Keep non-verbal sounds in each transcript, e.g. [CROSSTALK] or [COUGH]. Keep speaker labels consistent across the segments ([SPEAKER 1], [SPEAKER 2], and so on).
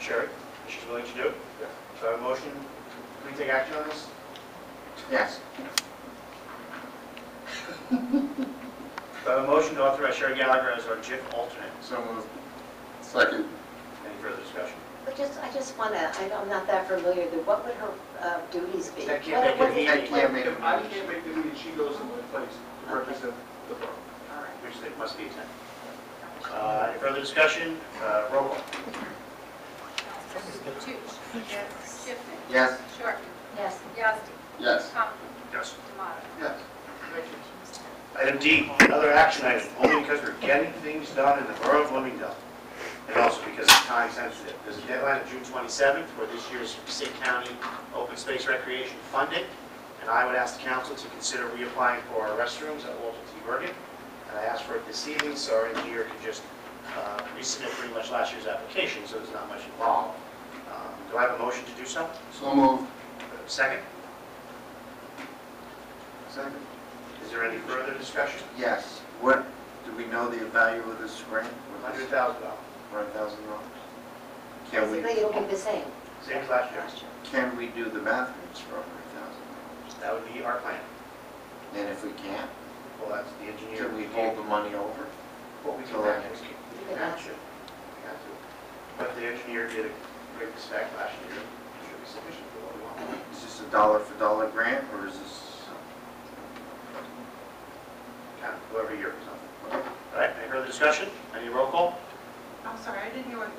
[SPEAKER 1] Sherry, that she's willing to do.
[SPEAKER 2] Yes.
[SPEAKER 1] So I have a motion, can we take action on this?
[SPEAKER 2] Yes.
[SPEAKER 1] So I have a motion to authorize Sherry Gallagher as our JIF alternate.
[SPEAKER 2] So moved. Second.
[SPEAKER 1] Any further discussion?
[SPEAKER 3] I just, I just want to, I know I'm not that familiar, but what would her uh, duties be?
[SPEAKER 1] I can't make
[SPEAKER 3] What-
[SPEAKER 1] it
[SPEAKER 3] what is-
[SPEAKER 1] easy.
[SPEAKER 2] I can't make a
[SPEAKER 4] I
[SPEAKER 2] motion.
[SPEAKER 4] can't make the meeting, she goes in my place to represent the borough.
[SPEAKER 3] all right.
[SPEAKER 1] Which they must be attended. Uh, Any further discussion? Uh, Roll call.
[SPEAKER 5] Toots. Yes. Schiffman.
[SPEAKER 2] Yes.
[SPEAKER 5] Shorten.
[SPEAKER 3] Yes,
[SPEAKER 5] Yazdi.
[SPEAKER 2] Yes.
[SPEAKER 5] Conklin.
[SPEAKER 1] Yes.
[SPEAKER 5] Tomato.
[SPEAKER 2] Yes.
[SPEAKER 1] Item D, another action item, only because we're getting things done in the borough of Bloomingdale, and also because it's time sensitive. There's a deadline of June 27th for this year's Passaic County Open Space Recreation funding, and I would ask the council to consider reapplying for our restrooms at Walter T. Bergen. And I asked for it this evening, so our engineer can just uh, resubmit pretty much last year's application, so there's not much involved. Um, Do I have a motion to do so?
[SPEAKER 2] So moved.
[SPEAKER 1] Second,
[SPEAKER 2] Second.
[SPEAKER 1] is there any further discussion?
[SPEAKER 2] Yes. What, do we know the value of this grant?
[SPEAKER 1] $100,000,
[SPEAKER 2] One thousand dollars? Can we,
[SPEAKER 3] basically it'll be the same.
[SPEAKER 1] same as last year.
[SPEAKER 3] Last year.
[SPEAKER 2] can we do the bathrooms for hundred thousand
[SPEAKER 1] That would be our plan.
[SPEAKER 2] dollars? And if we can't,
[SPEAKER 1] Well, that's the engineer.
[SPEAKER 2] can we hold the money over?
[SPEAKER 1] What we
[SPEAKER 2] till
[SPEAKER 1] can
[SPEAKER 2] that
[SPEAKER 1] ask.
[SPEAKER 2] next year?
[SPEAKER 3] You can ask.
[SPEAKER 1] But the engineer did a great spec last year. It Should be sufficient for what we want.
[SPEAKER 2] Is this a dollar for dollar grant or is this?
[SPEAKER 1] Kind of whoever year or something. All right, any further discussion? Any roll call?
[SPEAKER 6] I'm sorry, I didn't hear what,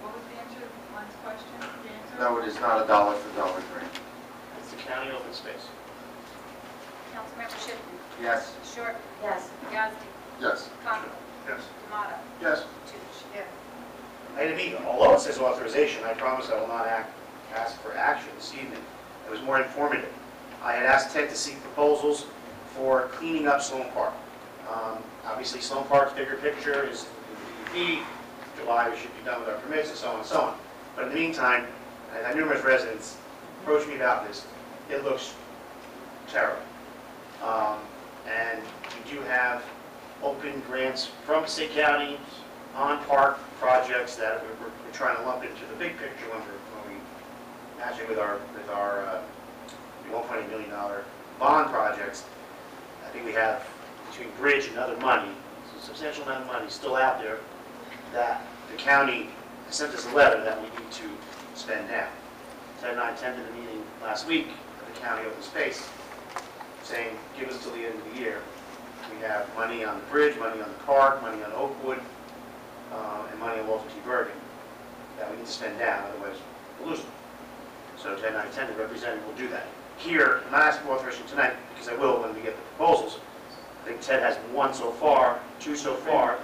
[SPEAKER 6] what was the answer to Glenn's question? The answer?
[SPEAKER 2] No, it is not a dollar for dollar grant.
[SPEAKER 1] It's the county open space.
[SPEAKER 5] Councilmember Schiffman.
[SPEAKER 2] Yes.
[SPEAKER 5] Shorten.
[SPEAKER 3] Yes,
[SPEAKER 5] Yazdi.
[SPEAKER 2] Yes.
[SPEAKER 5] Conklin.
[SPEAKER 1] Yes.
[SPEAKER 5] Tomato.
[SPEAKER 2] Yes.
[SPEAKER 5] Toots.
[SPEAKER 6] Yes.
[SPEAKER 1] Item E, although it says authorization, I promise I will not act, ask for action this evening. It was more informative. I had asked Ted to seek proposals for cleaning up Sloan Park. Um, Obviously, Sloan Park's bigger picture is DEP, July, we should be done with our permits and so on and so on. But in the meantime, I had numerous residents approach me about this. It looks terrible. Um, And we do have open grants from Passaic County, on-park projects that we're, we're- we're trying to lump into the big picture when we're, when we, matching with our, with our, uh, one point eight million dollar bond projects. I think we have between bridge and other money, a substantial amount of money still out there that the county sent us a letter that we need to spend now. Ted and I attended a meeting last week at the county open space, saying, give us till the end of the year. We have money on the bridge, money on the park, money on Oakwood, uh, and money on Walter T. Bergen that we need to spend down, otherwise we'll lose them. So ten out of ten, the representative will do that. Here, I'm not asking for authorization tonight, because I will when we get the proposals. I think Ted has one so far, two so far,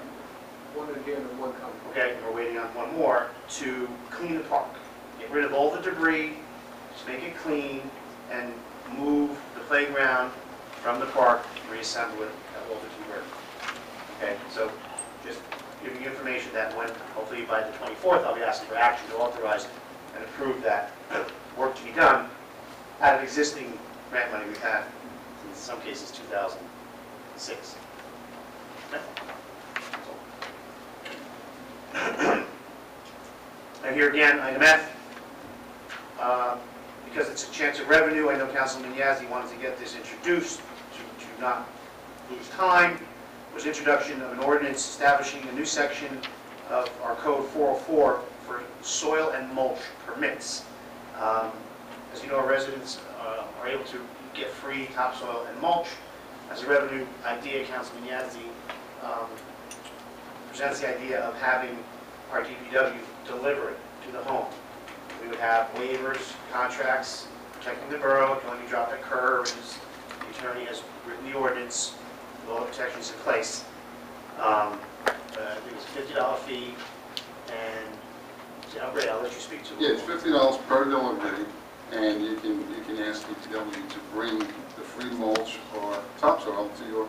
[SPEAKER 4] One in hand and one coming.
[SPEAKER 1] okay, and we're waiting on one more, to clean the park. Get rid of all the debris, just make it clean, and move the playground from the park, and reassemble it at Walter T. Bergen. Okay, so just giving you information that when, hopefully by the 24th, I'll be asking for action to authorize and approve that [CLEARS THROAT] work to be done out of existing grant money we've had, in some cases 2006. Okay? That's all. And here again, item F, uh, because it's a chance of revenue, I know Councilman Yazdi wanted to get this introduced to to not lose time, was introduction of an ordinance establishing a new section of our code 404 for soil and mulch permits. Um, As you know, our residents uh, are able to get free topsoil and mulch. As a revenue idea, Councilman Yazdi um, presents the idea of having our DPW deliver it to the home. We would have waivers, contracts, protecting the borough, can only drop at curbs, the attorney has written the ordinance, with all the protections in place. Um, uh, I think it's a fifty dollar fee, and, yeah, Ray, I'll let you speak to it.
[SPEAKER 7] Yeah, it's fifty dollars per delivery, and you can, you can ask DPW to bring the free mulch or topsoil to your,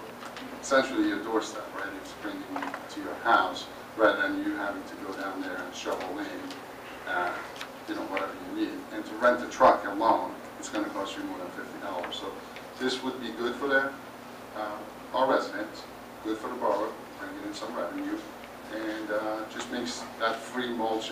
[SPEAKER 7] essentially your doorstep, right? It's bringing to your house, rather than you having to go down there and shovel in, uh, you know, whatever you need. And to rent a truck alone, it's gonna cost you more than fifty dollars. So this would be good for the, uh, our residents, good for the borough, bringing in some revenue, and uh, just makes that free mulch